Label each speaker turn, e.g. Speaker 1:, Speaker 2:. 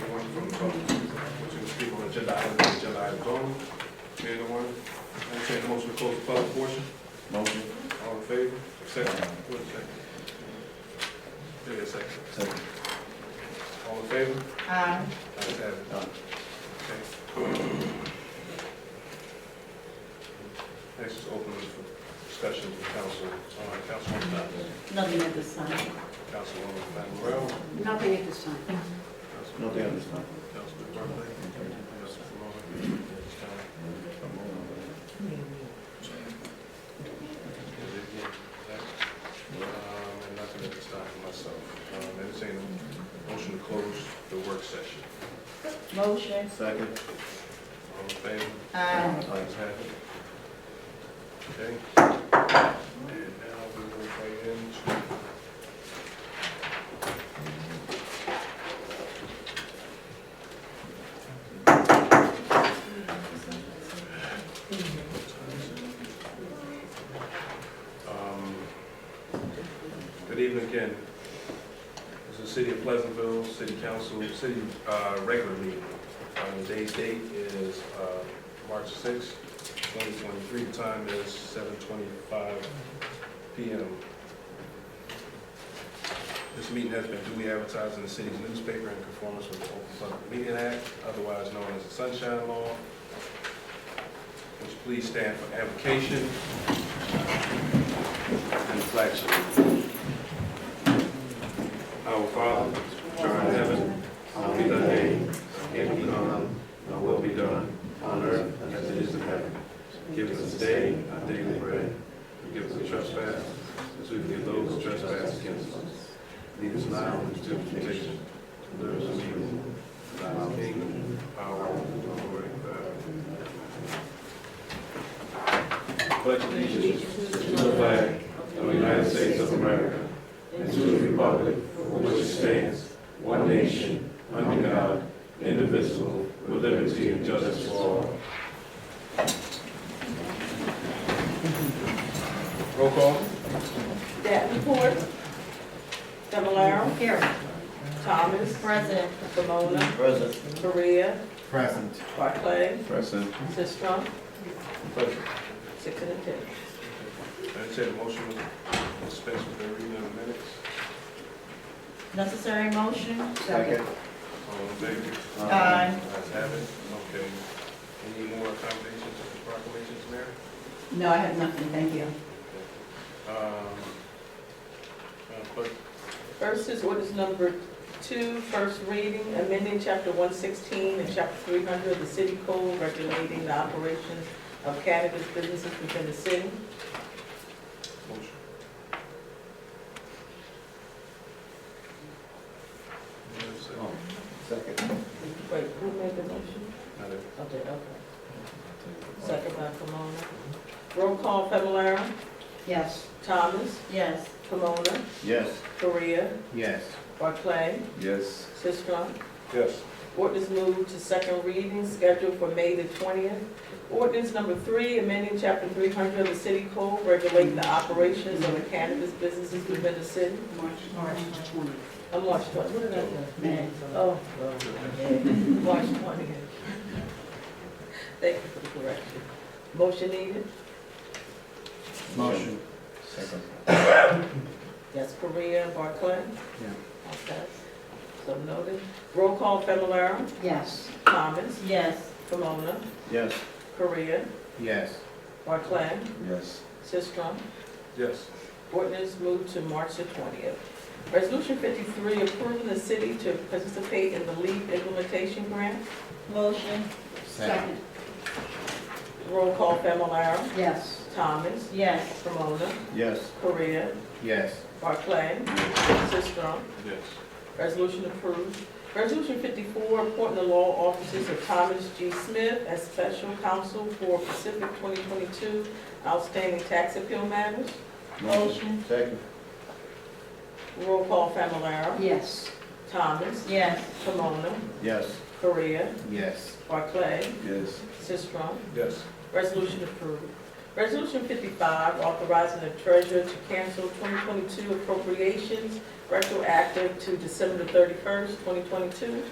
Speaker 1: from the public, which is speak on agenda items, agenda items only. Being the one, entertain a motion to close the public portion.
Speaker 2: Motion.
Speaker 1: All in favor? Second. Who is second? Give me a second.
Speaker 2: Second.
Speaker 1: All in favor?
Speaker 3: Aye.
Speaker 1: Ayes have it.
Speaker 2: Aye.
Speaker 1: Okay. Next is open for discussion with council, uh, Councilwoman Fennell.
Speaker 3: Nothing at this time.
Speaker 1: Councilwoman Fennell,
Speaker 3: Nothing at this time.
Speaker 1: Councilman
Speaker 2: No, they understand.
Speaker 1: Councilman Barclay. Councilman Ramon. Um, And nothing at this time for myself. Um, Entertain a motion to close the work session.
Speaker 3: Motion.
Speaker 2: Second.
Speaker 1: All in favor?
Speaker 3: Aye.
Speaker 1: Ayes have it. Okay. And now we will right into. Um, Good evening again. This is the City of Pleasantville, City Council, City uh, regular meeting. Um, Today's date is uh, March sixth, twenty twenty-three, time is seven twenty-five PM. This meeting has been duly advertised in the city's newspaper in conformance with the Open Public Meeting Act, otherwise known as the Sunshine Law. Which please stand for avocation and flag Our Father, which art in heaven, hallowed be thy name. Thy Kingdom come, thy will be done, on earth as it is in heaven. Give us this day our daily bread, forgive us our trespasses, as we forgive those who trespass against us. Lead us not into temptation, but deliver us from evil. For Thine is the kingdom, power, and glory forever. Pledge allegiance to the flag of the United States of America and to the republic for which it stands, one nation, under God, indivisible, with liberty and justice for all. Roll call.
Speaker 4: Davenport. Fablelaro.
Speaker 3: Here.
Speaker 4: Thomas.
Speaker 3: Present.
Speaker 4: Pomona.
Speaker 2: Present.
Speaker 4: Korea.
Speaker 2: Present.
Speaker 4: Barclay.
Speaker 2: Present.
Speaker 4: Sistrum.
Speaker 1: Pleasure.
Speaker 4: Six and a ten.
Speaker 1: Entertain a motion to dispense with the reading of the minutes.
Speaker 3: Necessary motion?
Speaker 2: Second.
Speaker 1: All in favor?
Speaker 3: Aye.
Speaker 1: Ayes have it. Okay. Any more accommodations or proclamations, Mayor?
Speaker 3: No, I have nothing, thank you.
Speaker 1: Um, Madam Clerk,
Speaker 4: First is orders number two, first reading, amending chapter one sixteen and chapter three hundred of the city code regulating the operations of cannabis businesses within the city.
Speaker 1: motion. Yes, sir.
Speaker 2: Um, Second.
Speaker 4: Wait, who made the motion?
Speaker 1: Now that-
Speaker 4: Okay, okay. Second by Pomona. Roll call, Fablelaro.
Speaker 3: Yes.
Speaker 4: Thomas.
Speaker 3: Yes.
Speaker 4: Pomona.
Speaker 2: Yes.
Speaker 4: Korea.
Speaker 2: Yes.
Speaker 4: Barclay.
Speaker 2: Yes.
Speaker 4: Sistrum.
Speaker 1: Yes.
Speaker 4: Ordinance moved to second reading scheduled for May the twentieth. Ordinance number three, amending chapter three hundred of the city code regulating the operations of the cannabis businesses within the city.
Speaker 3: March twenty.
Speaker 4: On March twenty, what did I do? Oh, March twenty. Thank you for the correction. Motion needed?
Speaker 2: Motion. Second.
Speaker 4: That's Korea and Barclay?
Speaker 2: Yeah.
Speaker 4: Okay. So noted. Roll call, Familar,
Speaker 3: Yes.
Speaker 4: Thomas,
Speaker 3: Yes.
Speaker 4: Pomona,
Speaker 2: Yes.
Speaker 4: Korea,
Speaker 2: Yes.
Speaker 4: Barclay,
Speaker 2: Yes.
Speaker 4: Sistrum.
Speaker 1: Yes.
Speaker 4: Ordinance moved to March the twentieth. Resolution fifty-three, approving the city to participate in the LEAP implementation grant.
Speaker 3: Motion?
Speaker 2: Second.
Speaker 4: Roll call, Familar,
Speaker 3: Yes.
Speaker 4: Thomas,
Speaker 3: Yes.
Speaker 4: Pomona,
Speaker 2: Yes.
Speaker 4: Korea,
Speaker 2: Yes.
Speaker 4: Barclay, Sistrum.
Speaker 1: Yes.
Speaker 4: Resolution approved. Resolution fifty-four, appointing the law offices of Thomas G. Smith as special counsel for Pacific twenty twenty-two outstanding tax appeal matters.
Speaker 3: Motion.
Speaker 2: Second.
Speaker 4: Roll call, Familar,
Speaker 3: Yes.
Speaker 4: Thomas,
Speaker 3: Yes.
Speaker 4: Pomona,
Speaker 2: Yes.
Speaker 4: Korea,
Speaker 2: Yes.
Speaker 4: Barclay,
Speaker 2: Yes.
Speaker 4: Sistrum.
Speaker 1: Yes.
Speaker 4: Resolution approved. Resolution fifty-five, authorizing the treasurer to cancel twenty twenty-two appropriations retroactive to December thirty-first, twenty twenty-two.